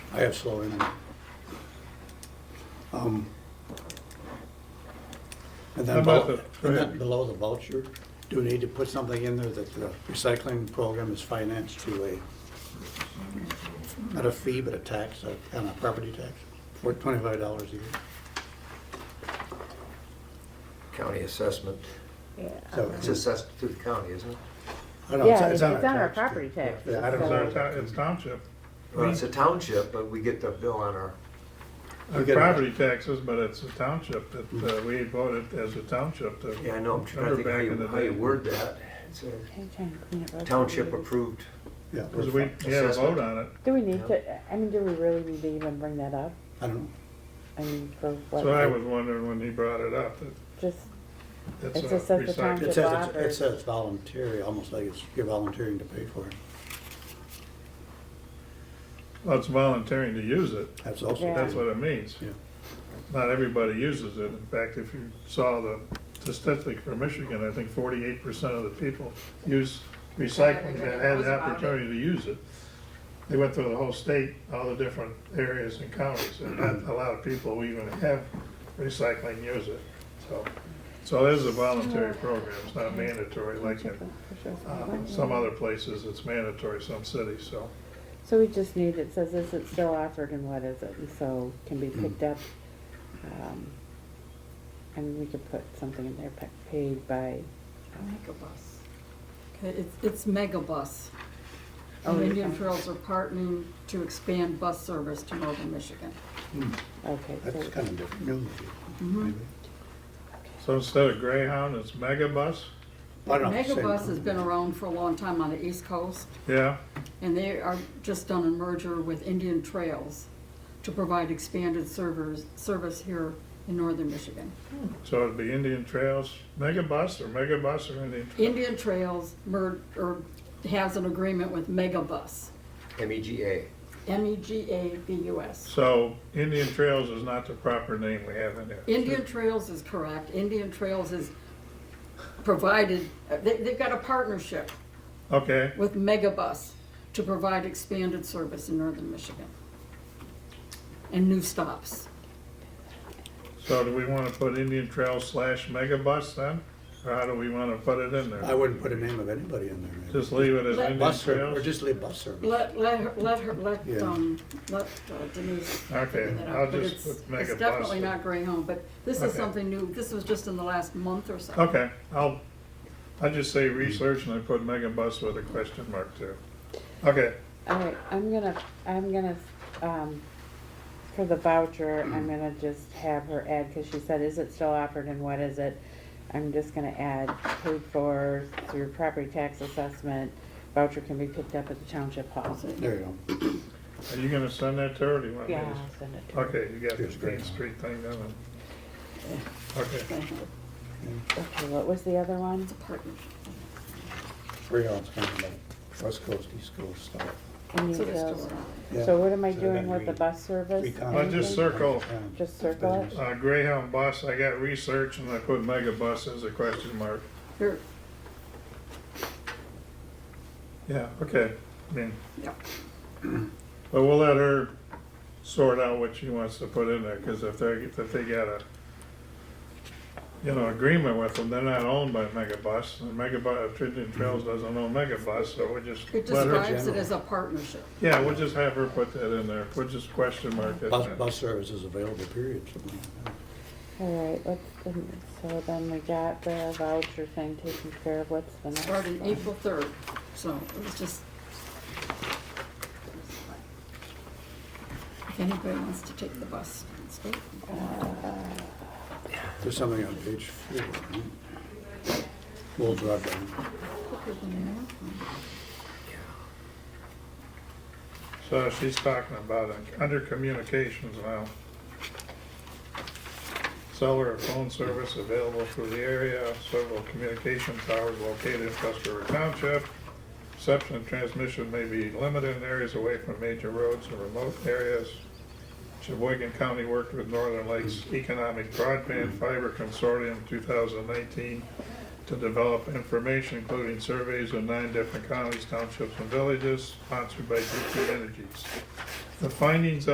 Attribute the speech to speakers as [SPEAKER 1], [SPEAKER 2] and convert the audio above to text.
[SPEAKER 1] I have slow internet. Um, And
[SPEAKER 2] How
[SPEAKER 1] then
[SPEAKER 2] about
[SPEAKER 1] below,
[SPEAKER 2] the- go
[SPEAKER 1] and then
[SPEAKER 2] ahead.
[SPEAKER 1] below the voucher, do we need to put something in there that the recycling program is financed to a, not a fee, but a tax, a- on a property tax, for twenty-five dollars a year?
[SPEAKER 3] county assessment.
[SPEAKER 1] So
[SPEAKER 3] It's assessed to the county, isn't it?
[SPEAKER 1] I don't know,
[SPEAKER 4] Yeah, it's on our
[SPEAKER 1] tax.
[SPEAKER 4] property tax.
[SPEAKER 1] Yeah, I don't
[SPEAKER 2] It's
[SPEAKER 1] know.
[SPEAKER 2] our town, it's township,
[SPEAKER 3] Well, it's a township, but we get the bill on our,
[SPEAKER 2] our
[SPEAKER 1] get it.
[SPEAKER 2] property taxes, but it's a township that uh, we voted as a township to.
[SPEAKER 3] Mm-hmm. yeah, I know, I'm trying to think how
[SPEAKER 2] Remember
[SPEAKER 3] you,
[SPEAKER 2] back
[SPEAKER 3] how
[SPEAKER 2] in the
[SPEAKER 3] you
[SPEAKER 2] day.
[SPEAKER 3] word that. It's a township approved.
[SPEAKER 1] Yeah,
[SPEAKER 2] Because we
[SPEAKER 1] we're-
[SPEAKER 2] had a
[SPEAKER 3] Assessment.
[SPEAKER 2] vote on it,
[SPEAKER 4] Do we need to, I mean, do we really need to even bring that up?
[SPEAKER 1] I don't know.
[SPEAKER 4] I mean, for what?
[SPEAKER 2] so I was wondering when he brought it up,
[SPEAKER 4] Just,
[SPEAKER 2] that
[SPEAKER 4] It's
[SPEAKER 2] it's a
[SPEAKER 4] just that the
[SPEAKER 2] recycling.
[SPEAKER 4] township-
[SPEAKER 1] It says, it's- it
[SPEAKER 4] Robert.
[SPEAKER 1] says voluntary, almost like it's, you're volunteering to pay for it.
[SPEAKER 2] Well, it's volunteering to use it,
[SPEAKER 1] That's also.
[SPEAKER 4] Yeah.
[SPEAKER 2] that's what it means.
[SPEAKER 1] Yeah.
[SPEAKER 2] Not everybody uses it, in fact, if you saw the statistic for Michigan, I think forty-eight percent of the people use recycling that had the opportunity to use it. They went through the whole state, all the different areas and counties, and not a lot of people who even have recycling use it, so. So it is a voluntary program, it's not mandatory like in, uh, some other places, it's mandatory, some cities, so.
[SPEAKER 4] so we just need, it says, is it still offered and what is it? And so can be
[SPEAKER 2] Hmm.
[SPEAKER 4] picked up. um, And we could put something in there, pa- paid by,
[SPEAKER 5] Megabus. Okay, it's, it's Megabus.
[SPEAKER 4] Oh,
[SPEAKER 5] And Indian
[SPEAKER 4] okay.
[SPEAKER 5] Trails are partnering to expand bus service to northern Michigan.
[SPEAKER 2] Hmm.
[SPEAKER 4] okay. so-
[SPEAKER 1] That's kind of different. news,
[SPEAKER 5] Mm-hmm.
[SPEAKER 1] maybe.
[SPEAKER 2] So instead of Greyhound, it's Megabus?
[SPEAKER 1] I don't know, same
[SPEAKER 5] Megabus has
[SPEAKER 1] company.
[SPEAKER 5] been around for a long time on the East Coast,
[SPEAKER 2] Yeah,
[SPEAKER 5] and they are just done a merger with Indian Trails to provide expanded servers, service here in northern Michigan.
[SPEAKER 2] so it'd be Indian Trails, Megabus or Megabus or Indian Trails?
[SPEAKER 5] Indian Trails mer, or has an agreement with Megabus,
[SPEAKER 3] MEGA.
[SPEAKER 5] E M-E-G-A-B-U-S.
[SPEAKER 2] So Indian Trails is not the proper name we have in there.
[SPEAKER 5] Indian Trails is correct. Indian Trails is provided, they, they've got a partnership
[SPEAKER 2] Okay,
[SPEAKER 5] with Megabus to provide expanded service in northern Michigan. And new stops.
[SPEAKER 2] so do we want to put Indian Trails slash Megabus then? Or how do we want to put it in
[SPEAKER 1] I
[SPEAKER 2] there?
[SPEAKER 1] wouldn't put a name of anybody in there. maybe.
[SPEAKER 2] Just leave it as
[SPEAKER 5] Let-
[SPEAKER 2] Indian
[SPEAKER 1] Bus service, or
[SPEAKER 2] Trails?
[SPEAKER 1] just leave bus service.
[SPEAKER 5] Let, let, her- let her, let,
[SPEAKER 1] Yeah.
[SPEAKER 5] um, let uh, Denise.
[SPEAKER 2] Okay,
[SPEAKER 5] figure that out,
[SPEAKER 2] I'll
[SPEAKER 5] but
[SPEAKER 2] just
[SPEAKER 5] it's-
[SPEAKER 2] put Megabus.
[SPEAKER 5] It's definitely not Greyhound, but this is
[SPEAKER 2] Okay.
[SPEAKER 5] something new. This was just in the last month or so.
[SPEAKER 2] Okay, I'll, I just say research and I put Megabus with a question mark too. Okay,
[SPEAKER 4] All right, I'm gonna, I'm gonna, um, for the voucher, I'm gonna just have her add, cause she said, is it still offered and what is it? I'm just gonna add, paid for through property tax assessment, voucher can be picked up at the township hall.
[SPEAKER 1] There you go.
[SPEAKER 2] are you going to send that to her or do you want me
[SPEAKER 4] Yeah,
[SPEAKER 2] to?
[SPEAKER 4] I'll send it to her.
[SPEAKER 2] Okay, you got the
[SPEAKER 1] Here's great.
[SPEAKER 2] Main Street thing done. and- Okay,
[SPEAKER 5] Greyhound,
[SPEAKER 4] Okay, what was the other one?
[SPEAKER 5] It's a partnership.
[SPEAKER 1] Three on, it's kind of like west coast, east coast stuff.
[SPEAKER 4] Indian
[SPEAKER 5] So they're still
[SPEAKER 4] Trails.
[SPEAKER 5] around.
[SPEAKER 1] Yeah.
[SPEAKER 4] So what am I
[SPEAKER 1] So they're
[SPEAKER 4] doing with the
[SPEAKER 1] green.
[SPEAKER 4] bus service?
[SPEAKER 1] Three times.
[SPEAKER 2] Well, just
[SPEAKER 4] Anything?
[SPEAKER 2] circle.
[SPEAKER 1] Um,
[SPEAKER 4] Just circle it?
[SPEAKER 1] business.
[SPEAKER 2] uh, Greyhound bus, I got research and I put Megabus as a question mark.
[SPEAKER 5] They're-
[SPEAKER 2] Yeah, okay, I mean,
[SPEAKER 5] yeah.
[SPEAKER 2] but we'll let her sort out what she wants to put in there, because if they, if they got a, you know, agreement with them, they're not owned by Megabus, and Megabus, Trinity Trails doesn't own Megabus, so we'll just
[SPEAKER 5] It
[SPEAKER 2] let her,
[SPEAKER 5] describes it
[SPEAKER 1] general.
[SPEAKER 5] as a partnership.
[SPEAKER 2] yeah, we'll just have her put that in there, we'll just question mark it.
[SPEAKER 1] Bus, bus service is available, period. something like that.
[SPEAKER 4] All right, what's, the- so then we got the voucher thing taken care of, what's the next one?
[SPEAKER 5] started April third, so it was just. If anybody wants to take the bus, it's great.
[SPEAKER 1] There's something on page four. We'll drop down.
[SPEAKER 5] Quicker than an airplane.
[SPEAKER 2] So she's talking about it under communications now. Cellular phone service available through the area, several communication towers located in Custer Township. Reception and transmission may be limited in areas away from major roads and remote areas. Sheboygan County worked with Northern Lakes Economic Broadband Fiber Consortium 2019 to develop information, including surveys of nine different counties, townships, and villages, sponsored by DP Energies. the findings